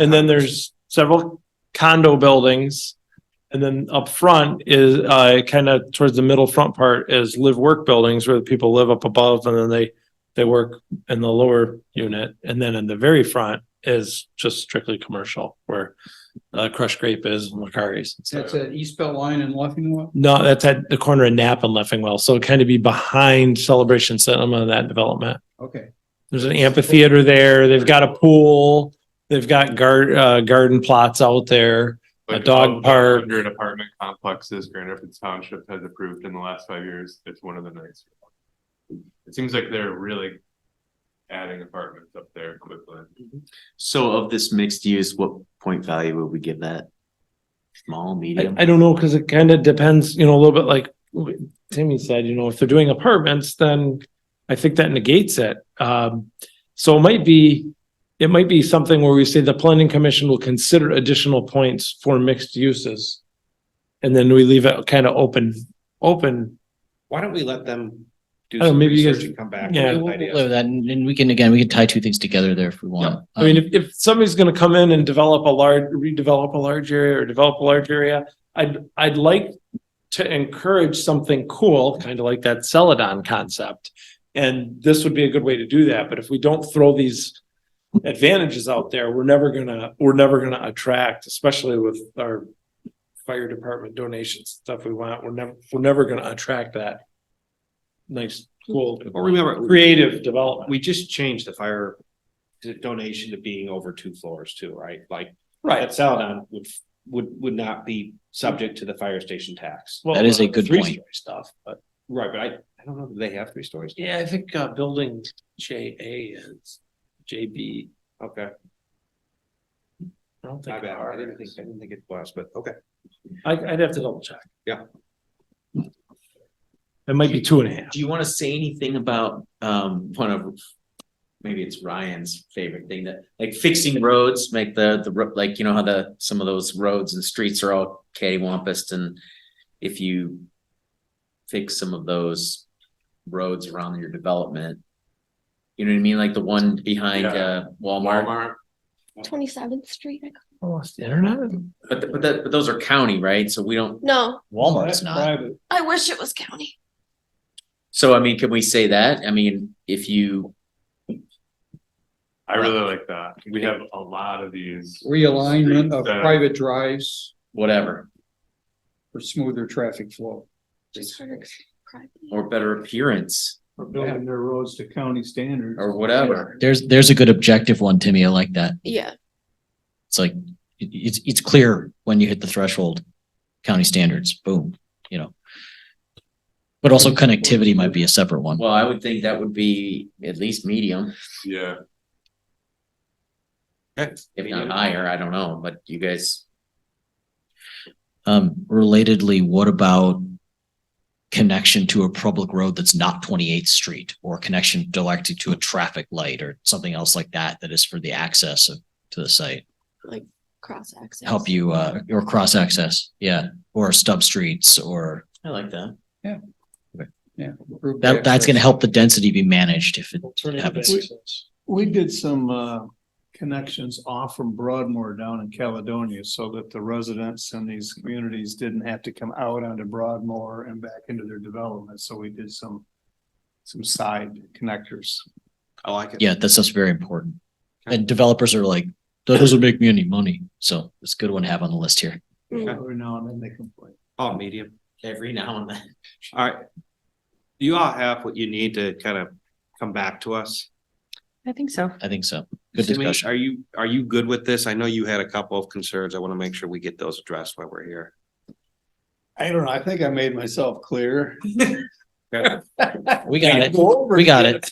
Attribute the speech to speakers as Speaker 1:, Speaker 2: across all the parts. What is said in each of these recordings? Speaker 1: And then there's several condo buildings. And then up front is, uh, kind of towards the middle front part is live work buildings where the people live up above and then they, they work in the lower unit. And then in the very front is just strictly commercial where, uh, Crush Grape is and Macari's.
Speaker 2: That's at East Bell Line and Leffingwell.
Speaker 1: No, that's at the corner of Nap and Leffingwell. So kind of be behind Celebration Cinema, that development.
Speaker 2: Okay.
Speaker 1: There's an amphitheater there. They've got a pool. They've got gar- uh, garden plots out there.
Speaker 3: Like,
Speaker 1: dog
Speaker 3: of the
Speaker 1: park.
Speaker 3: Hundred apartment complexes Grand Rapids Township has approved in the last five years, it's one of the nicer. It seems like they're really adding apartments up there quickly.
Speaker 4: So of this mixed use, what point value would we give that? Small,
Speaker 1: I,
Speaker 4: medium?
Speaker 1: I don't know, because it kind of depends, you know, a little bit like Timmy said, you know, if they're doing apartments, then I think that negates it. Um, so it might be, it might be something where we say the planning commission will consider additional points for mixed uses. And then we leave it kind of open, open.
Speaker 5: Why don't we let them
Speaker 1: I
Speaker 5: do
Speaker 1: don't know,
Speaker 5: some
Speaker 1: maybe you
Speaker 5: research
Speaker 1: guys-
Speaker 5: and come back
Speaker 1: yeah.
Speaker 5: with
Speaker 6: We'll-
Speaker 5: an
Speaker 6: we'll
Speaker 5: idea?
Speaker 6: play with that, and and we can, again, we can tie two things together there if we
Speaker 1: Yeah.
Speaker 6: want.
Speaker 1: I mean,
Speaker 6: Um,
Speaker 1: if, if somebody's gonna come in and develop a large, redevelop a large area or develop a large area, I'd, I'd like to encourage something cool, kind of like that Celadon concept. And this would be a good way to do that, but if we don't throw these advantages out there, we're never gonna, we're never gonna attract, especially with our fire department donations, stuff we want, we're never, we're never gonna attract that nice, cool,
Speaker 5: Well, remember,
Speaker 1: creative development.
Speaker 5: we just changed the fire to donation to being over two floors too, right? Like,
Speaker 1: Right.
Speaker 5: that Celadon would, would, would not be subject to the fire station tax.
Speaker 1: Well,
Speaker 6: That is a
Speaker 1: the
Speaker 6: good point.
Speaker 1: three-story Stuff, but.
Speaker 5: Right, but I, I don't know, do they have three stories?
Speaker 1: Yeah, I think uh building J A is J B.
Speaker 5: Okay,
Speaker 1: I don't think.
Speaker 5: my bad, I
Speaker 1: R
Speaker 5: didn't think,
Speaker 1: is.
Speaker 5: I didn't think it was, but okay.
Speaker 1: I I'd have to double check.
Speaker 5: Yeah.
Speaker 1: It might be two and a half.
Speaker 4: Do you want to say anything about um one of maybe it's Ryan's favorite thing that like fixing roads, make the the ro- like, you know how the some of those roads and streets are all cattywampus and if you fix some of those roads around your development, you know what I mean? Like the one behind uh
Speaker 3: Yeah.
Speaker 4: Walmart.
Speaker 7: Twenty seventh Street. I-
Speaker 1: Lost internet?
Speaker 4: But th- but that but those are county, right? So we don't,
Speaker 7: No,
Speaker 6: Walmart's not.
Speaker 2: Private.
Speaker 7: I wish it was county.
Speaker 4: so I mean, can we say that? I mean, if you
Speaker 3: I really like that. We have a lot of these.
Speaker 2: Realignment of
Speaker 3: That-
Speaker 2: private drives
Speaker 4: whatever,
Speaker 2: for smoother traffic flow.
Speaker 7: Just harder 'cause it's private.
Speaker 4: or better appearance,
Speaker 8: Or building their roads to county standards.
Speaker 4: or whatever.
Speaker 6: There's, there's a good objective one, Timmy. I like that.
Speaker 7: Yeah,
Speaker 6: It's like, it- it's, it's clear when you hit the threshold, county standards, boom, you know. But also connectivity might be a separate one.
Speaker 4: Well, I would think that would be at least medium,
Speaker 3: Yeah,
Speaker 4: if not
Speaker 5: Medium.
Speaker 4: higher, I don't know, but you guys,
Speaker 6: Um, relatedly, what about connection to a public road that's not Twenty-Eighth Street or connection directly to a traffic light or something else like that, that is for the access of, to the site?
Speaker 7: cross access.
Speaker 6: help you uh or cross access, yeah, or stub streets or
Speaker 4: I like that.
Speaker 2: Yeah. Improve
Speaker 6: that that's
Speaker 2: access.
Speaker 6: gonna help the density be managed if it
Speaker 1: Alternative
Speaker 6: happens.
Speaker 1: access.
Speaker 8: We did some uh connections off from Broadmoor down in Caledonia so that the residents in these communities didn't have to come out onto Broadmoor and back into their development. So we did some some side connectors.
Speaker 5: I like it.
Speaker 6: Yeah, that's that's very important. And developers are like, that doesn't make me any money. So it's a good one to have on the list here.
Speaker 8: Every now and then they complain.
Speaker 5: Oh, medium.
Speaker 4: Every now and then.
Speaker 5: All right. Do you all have what you need to kind of come back to us?
Speaker 9: I think so.
Speaker 6: I think so. Good
Speaker 5: Simi,
Speaker 6: discussion.
Speaker 5: Are you, are you good with this? I know you had a couple of concerns. I want to make sure we get those addressed while we're here.
Speaker 8: I don't know. I think I made myself clear.
Speaker 6: We got it. We got it.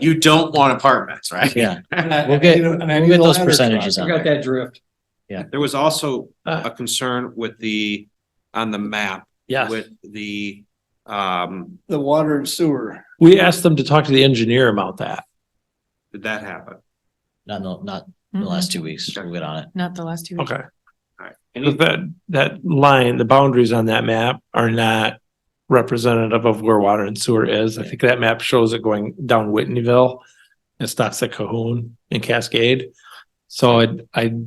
Speaker 4: You don't want apartments, right?
Speaker 6: Yeah,
Speaker 8: We'll
Speaker 6: we'll get, we'll get those percentages
Speaker 2: I
Speaker 6: on
Speaker 2: got
Speaker 6: there.
Speaker 2: that drift.
Speaker 5: There was also
Speaker 1: Uh.
Speaker 5: a concern with the, on the map
Speaker 1: Yeah,
Speaker 5: with the, um,
Speaker 8: The water and sewer.
Speaker 1: we asked them to talk to the engineer about that.
Speaker 5: did that happen?
Speaker 6: Not, in the- not in the last two weeks. We'll get on it.
Speaker 9: Mm-mm, Not the last two. weeks.
Speaker 1: Okay.
Speaker 5: All right.
Speaker 1: But
Speaker 5: Any,
Speaker 1: that, that line, the boundaries on that map are not representative of where water and sewer is. I think that map shows it going down Whitneyville. It stops at Cahoon and Cascade. So I, I